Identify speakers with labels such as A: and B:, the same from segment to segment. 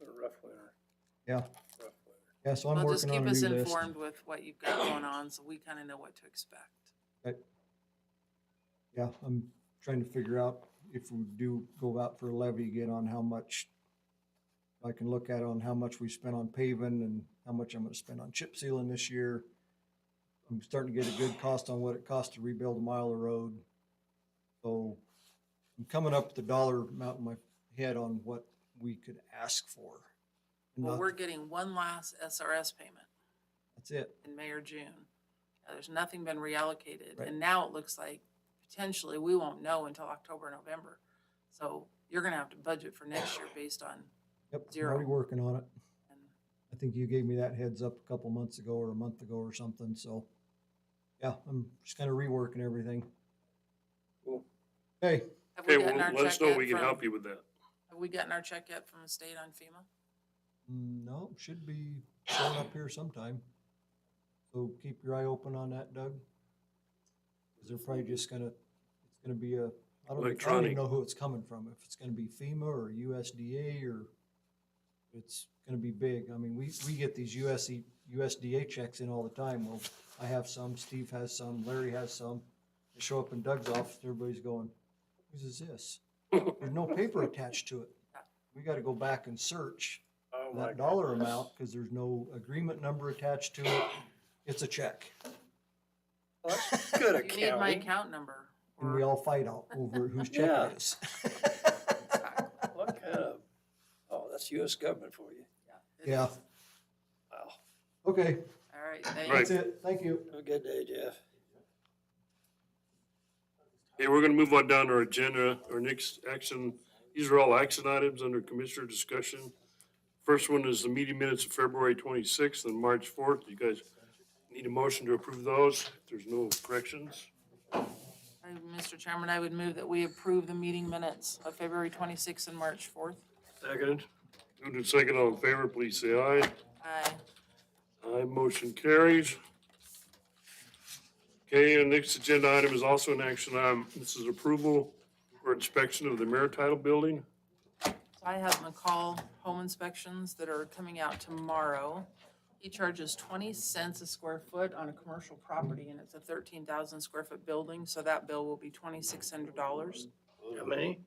A: letter,
B: Yeah,
A: rough letter.
B: yeah, so I'm
C: Well, just
B: working
C: keep
B: on a
C: us
B: new list.
C: informed with what you've got going on, so we kind of know what to expect.
B: Yeah, I'm trying to figure out if we do go out for a levy again on how much I can look at on how much we spent on paving and how much I'm gonna spend on chip sealing this year. I'm starting to get a good cost on what it costs to rebuild a mile of road. So I'm coming up with the dollar amount in my head on what we could ask for.
C: Well,
B: Not-
C: we're getting one last SRS payment
B: That's it,
C: in May or June. Uh, There's nothing been reallocated,
B: Right.
C: and now it looks like potentially we won't know until October, November. So you're gonna have to budget for next year based on,
B: yep, I'm
C: Zero.
B: already working on it.
C: and
B: I think you gave me that heads up a couple months ago or a month ago or something, so. Yeah, I'm just kinda reworking everything.
A: Cool.
B: Hey,
C: have we
D: Okay,
C: gotten
D: well,
C: our
D: let
C: check
D: us know
C: yet
D: we can
C: from-
D: help you with that.
C: Have we gotten our check yet from the state on FEMA?
B: mm, no, should be showing up here sometime. So keep your eye open on that, Doug. Cause they're probably just gonna, it's gonna be a, I don't, I don't even
D: Electronic.
B: know who it's coming from, if it's gonna be FEMA or USDA or. It's gonna be big. I mean, we, we get these E, USC, USDA checks in all the time. Well, I have some, Steve has some, Larry has some. They show up in Doug's office, everybody's going, whose is this? There's no paper attached to it. We gotta go back and search
A: Oh my
B: that dollar
A: goodness.
B: amount, because there's no agreement number attached to it. It's a check,
A: Well, That's good
C: You need my
A: accounting.
C: account number.
B: and
C: or-
B: we all fight out over whose check
A: Yeah.
B: it is.
A: What kind of, oh, that's US government for you.
C: It
B: Yeah,
C: is.
A: Wow.
B: okay,
C: All right, thanks.
D: Right.
B: that's it, thank you.
A: Have a good day, Jeff.
D: Hey, we're gonna move on down to our agenda, our next action, these are all action items under commissioner discussion. First one is the meeting minutes of February twenty-sixth and March fourth. You guys need a motion to approve those. If There's no corrections.
C: I- Mr. Chairman, I would move that we approve the meeting minutes of February 26th and March 4th.
D: Second. Moved and second, all in favor, please say aye.
C: Aye.
D: Aye, motion carries. Okay, and next agenda item is also an action item. This is approval or inspection of the Maritidal Building.
C: So I have McCall Home Inspections that are coming out tomorrow. He charges 20 cents a square foot on a commercial property, and it's a 13,000 square foot building, so that bill will be $2,600.
A: How many?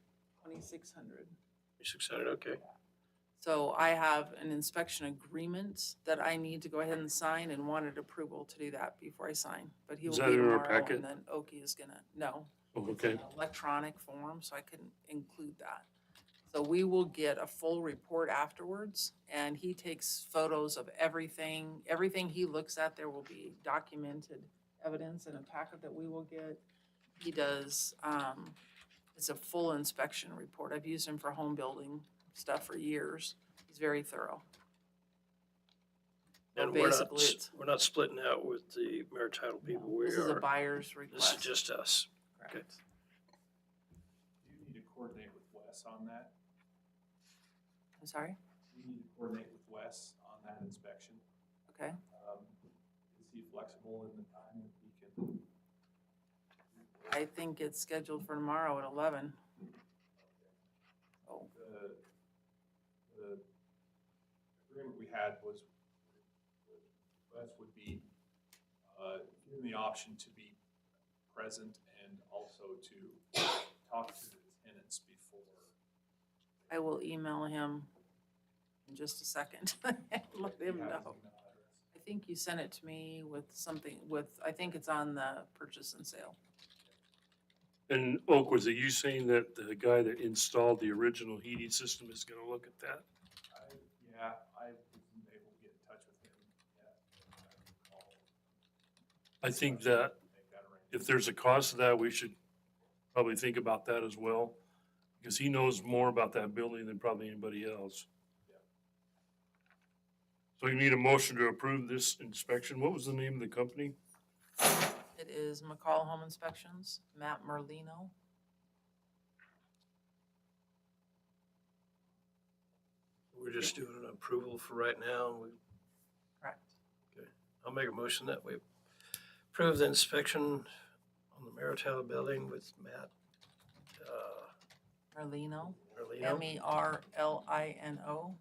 C: 2,600.
A: Six hundred, okay.
C: So I have an inspection agreement that I need to go ahead and sign and wanted approval to do that before I sign. But he will
D: Is
C: be
D: that in our
C: tomorrow,
D: packet?
C: and then Oki is gonna, no,
D: Oh, Okay,
C: electronic form, so I couldn't include that. So we will get a full report afterwards, and he takes photos of everything. Everything he looks at, there will be documented evidence in a packet that we will get. He does, um, it's a full inspection report. I've used him for home building stuff for years. He's very thorough.
E: And we're not,
C: Basically, it's,
E: we're not splitting out with the maritidal people. We
C: this is a
E: are,
C: buyer's
E: this is
C: request.
E: just us.
C: Correct.
F: Do you need to coordinate with Wes on that?
C: I'm sorry?
F: Do you need to coordinate with Wes on that inspection?
C: Okay.
F: Um, Is he flexible in the time that he can?
C: I think it's scheduled for tomorrow at eleven. Oh.
F: The, the agreement we had was Wes would be, uh, given the option to be present and also to talk to the tenants before.
C: I will email him in just a second. Let him
F: We have his
C: know.
F: email address.
C: I think you sent it to me with something with, I think it's on the purchase and sale.
D: and Oak, was it you saying that the guy that installed the original heating system is gonna look at that?
F: I, yeah, I wasn't able to get in touch with him yet. I can call
D: I think
F: Discussion,
D: that
F: make that arrangement.
D: if there's a cost to that, we should probably think about that as well. Because he knows more about that building than probably anybody else. So you need a motion to approve this inspection. What was the name of the company?
C: It is McCall Home Inspections, Matt Merlino.
E: We're just doing an approval for right now. We-
C: Correct.
E: I'll make a motion that we approve the inspection on the maritidal building with Matt, uh,
C: Merlino,
E: Merlino.
C: M E R L I N O.